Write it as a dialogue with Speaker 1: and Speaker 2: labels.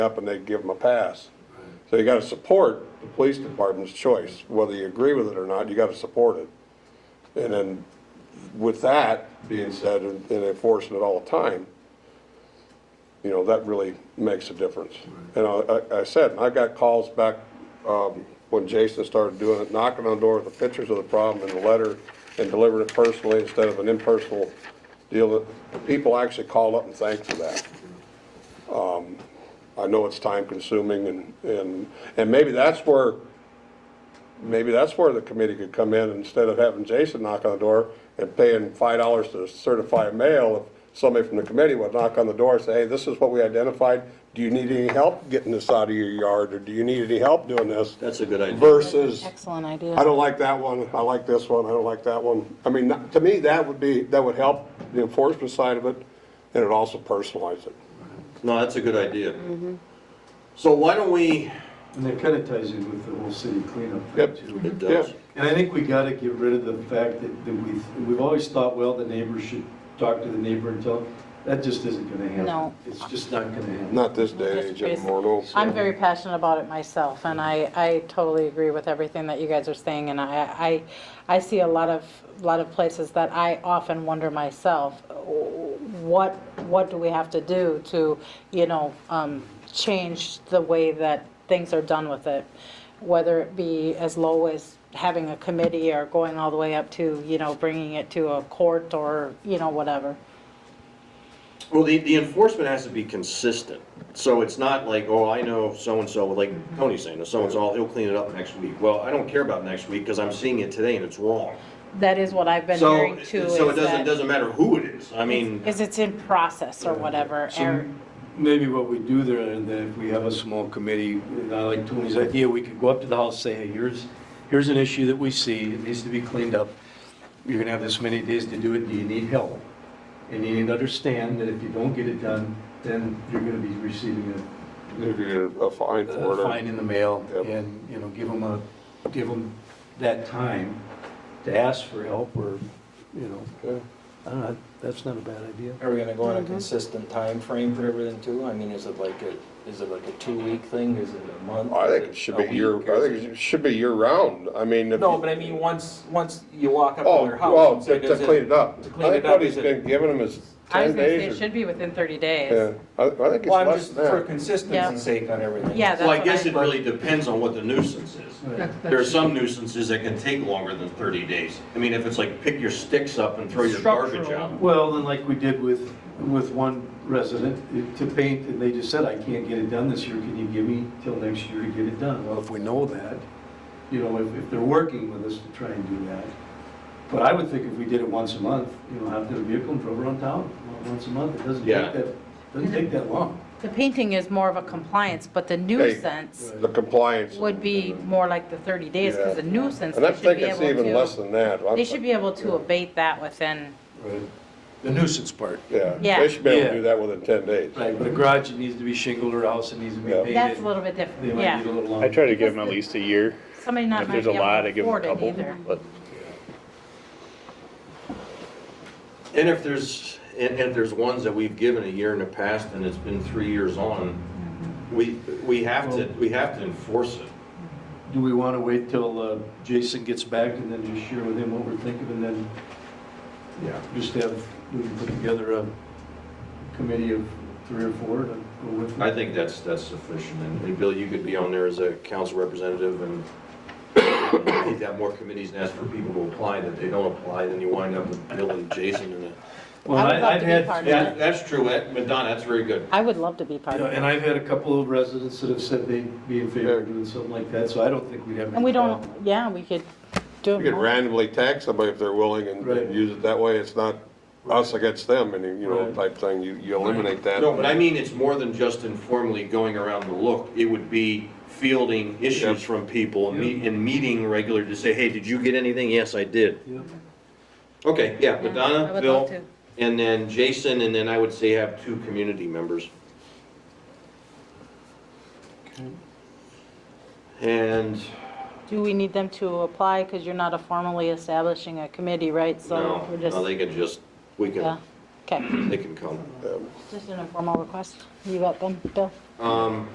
Speaker 1: up and they give them a pass. So you gotta support the police department's choice, whether you agree with it or not, you gotta support it. And then with that being said, and and enforcing it all the time, you know, that really makes a difference. And I, I- I said, I got calls back, um, when Jason started doing it, knocking on doors with pictures of the problem and the letter and delivering it personally instead of an impersonal deal. People actually called up and thanked for that. I know it's time consuming and, and, and maybe that's where, maybe that's where the committee could come in instead of having Jason knock on the door and paying five dollars to certify a mail, if somebody from the committee would knock on the door and say, hey, this is what we identified. Do you need any help getting this out of your yard or do you need any help doing this?
Speaker 2: That's a good idea.
Speaker 1: Versus,
Speaker 3: Excellent idea.
Speaker 1: I don't like that one, I like this one, I don't like that one. I mean, to me, that would be, that would help the enforcement side of it and it also personalize it.
Speaker 2: No, that's a good idea.
Speaker 3: Mm-hmm.
Speaker 2: So why don't we,
Speaker 4: And that kind of ties in with the whole city cleanup
Speaker 1: Yep.
Speaker 4: thing too.
Speaker 2: it does,
Speaker 1: Yeah.
Speaker 4: And I think we got to get rid of the fact that, that we, we've always thought, well, the neighbor should talk to the neighbor and tell, him. that just isn't going to happen.
Speaker 3: No.
Speaker 4: It's just not going to happen.
Speaker 1: Not this day and age anymore, no.
Speaker 3: I'm very passionate about it myself, and I, I totally agree with everything that you guys are saying, and I, I, I see a lot of, lot of places that I often wonder myself, what, what do we have to do to, you know, um, change the way that things are done with it? Whether it be as low as having a committee or going all the way up to, you know, bringing it to a court or, you know, whatever.
Speaker 2: well, the, the enforcement has to be consistent. So it's not like, oh, I know so-and-so, like
Speaker 3: Mm-hmm.
Speaker 2: Tony's saying, so-and-so, he'll clean it up next week. Well, I don't care about next week because I'm seeing it today and it's wrong.
Speaker 3: That is what I've been
Speaker 2: So,
Speaker 3: hearing too, is
Speaker 2: so it doesn't,
Speaker 3: that-
Speaker 2: doesn't matter who it is. I mean,
Speaker 3: Is it's in process or whatever,
Speaker 4: So
Speaker 3: or,
Speaker 4: maybe what we do there, and then if we have a small committee, and I like Tony's idea, we could go up to the house, say, hey, here's, here's an issue that we see, it needs to be cleaned up. You're gonna have this many days to do it, do you need help? And you need to understand that if you don't get it done, then you're gonna be receiving a
Speaker 1: If you're a fine for it.
Speaker 4: a
Speaker 1: or-
Speaker 4: fine Uh, in the mail
Speaker 1: Yep.
Speaker 4: and, you know, give them a, give them that time to ask for help or, you
Speaker 1: Yeah.
Speaker 4: know, I don't know, that's not a bad idea.
Speaker 5: Are we gonna go on a consistent time frame for everything too? I mean, is it like a, is it like a two-week thing? Is it a month?
Speaker 1: I think
Speaker 5: Is
Speaker 1: it should
Speaker 5: a
Speaker 1: be
Speaker 5: week?
Speaker 1: year,
Speaker 5: Or
Speaker 1: I
Speaker 5: is
Speaker 1: think it should be year round, I mean. if-
Speaker 5: No, but I mean, once, once you walk up
Speaker 1: Oh,
Speaker 5: to their
Speaker 1: well,
Speaker 5: house.
Speaker 1: to
Speaker 5: and
Speaker 1: to
Speaker 5: say, "Does
Speaker 1: clean it up. I
Speaker 5: to clean
Speaker 1: think
Speaker 5: it up,
Speaker 1: what he's
Speaker 5: is it-
Speaker 1: been giving them is
Speaker 3: I
Speaker 1: ten
Speaker 3: was gonna say it
Speaker 1: days or,
Speaker 3: should be within 30
Speaker 1: yeah,
Speaker 3: days.
Speaker 1: I, I think it's
Speaker 5: Well, I'm
Speaker 1: less
Speaker 5: just, for
Speaker 1: than that.
Speaker 3: Yeah.
Speaker 5: consistency's sake on everything.
Speaker 3: Yeah,
Speaker 2: well, I
Speaker 3: That's what
Speaker 2: guess
Speaker 3: I-
Speaker 2: it really depends on what the nuisance is. There are some nuisances that can take longer than 30 days. I mean, if it's like pick your sticks up and throw your garbage out.
Speaker 4: Well, then like we did with, with one resident to paint, and they just said, I can't get it done this year, can you give me till next year to get it done? Well, if we know that, you know, if, if they're working with us to try and do that. But I would think if we did it once a month, you know, have their vehicle and drove around town, well, once a month, it doesn't
Speaker 2: Yeah.
Speaker 4: take that, doesn't take that long.
Speaker 3: The painting is more of a compliance, but the nuisance
Speaker 1: The compliance.
Speaker 3: would be more like the 30 days, because the nuisance,
Speaker 1: And I
Speaker 3: they should
Speaker 1: think
Speaker 3: be
Speaker 1: it's
Speaker 3: able
Speaker 1: even less
Speaker 3: to,
Speaker 1: than that. I'm-
Speaker 3: they should be able to abate that within,
Speaker 4: Right. The nuisance part.
Speaker 1: Yeah,
Speaker 3: Yeah.
Speaker 1: they should be able
Speaker 4: Yeah.
Speaker 1: to do that within ten days.
Speaker 4: Right, but a garage, it needs to be shingled, or a house, it needs to be
Speaker 1: Yeah.
Speaker 4: painted.
Speaker 3: that's a little bit
Speaker 4: They
Speaker 3: different,
Speaker 4: might need a
Speaker 3: yeah.
Speaker 4: little
Speaker 6: I
Speaker 4: longer.
Speaker 6: try to give them at least a year.
Speaker 3: Somebody not
Speaker 6: If
Speaker 3: might
Speaker 6: there's
Speaker 3: be
Speaker 6: a
Speaker 3: able
Speaker 6: lot,
Speaker 3: to
Speaker 6: I give them a
Speaker 3: afford it
Speaker 6: couple,
Speaker 3: either.
Speaker 6: but
Speaker 2: And if there's, and and if there's ones that we've given a year in the past and it's been three years on, we, we have to, we have to enforce it.
Speaker 4: Do we want to wait till uh, Jason gets back and then just share with him what we're thinking, and then
Speaker 2: Yeah.
Speaker 4: just have, we can put together a committee of three or four to go with
Speaker 2: I
Speaker 4: it?
Speaker 2: think that's, that's sufficient. And and Bill, you could be on there as a council representative and I think that more committees and ask for people to apply, that they don't apply, then you wind up with Bill and Jason and a-
Speaker 4: Well,
Speaker 3: I would
Speaker 4: I-
Speaker 3: love
Speaker 4: I've
Speaker 3: to be
Speaker 4: had-
Speaker 3: part of
Speaker 2: That, that's true, that, Madonna, that's very good.
Speaker 3: I would love to be part
Speaker 4: You know,
Speaker 3: of it.
Speaker 4: And I've had a couple of residents that have said they'd be in favor of doing something like that, so I don't think we'd have.
Speaker 3: And we
Speaker 4: any
Speaker 3: don't,
Speaker 4: problem.
Speaker 3: yeah, we could do
Speaker 1: You could
Speaker 3: it,
Speaker 1: randomly tag somebody if they're willing and
Speaker 4: Right.
Speaker 1: and use it that way. It's not us against them and, you know,
Speaker 4: Right.
Speaker 1: type thing. You, you eliminate that.
Speaker 2: No, but I mean, it's more than just informally going around the look. It would be fielding issues from people and me- and meeting regularly to say, hey, did you get anything? Yes, I did.
Speaker 4: Yep.
Speaker 2: Okay, yeah,
Speaker 3: I
Speaker 2: Madonna,
Speaker 3: would
Speaker 2: Bill,
Speaker 3: love to.
Speaker 2: and then Jason, and then I would say have two community members. And,
Speaker 3: do we need them to apply, because you're not a formally establishing a committee, right? So
Speaker 2: no,
Speaker 3: we're just,
Speaker 2: no, they can just, we can,
Speaker 3: yeah, okay,
Speaker 2: they can come.
Speaker 3: just an informal request, you got them, Bill?
Speaker 2: Um,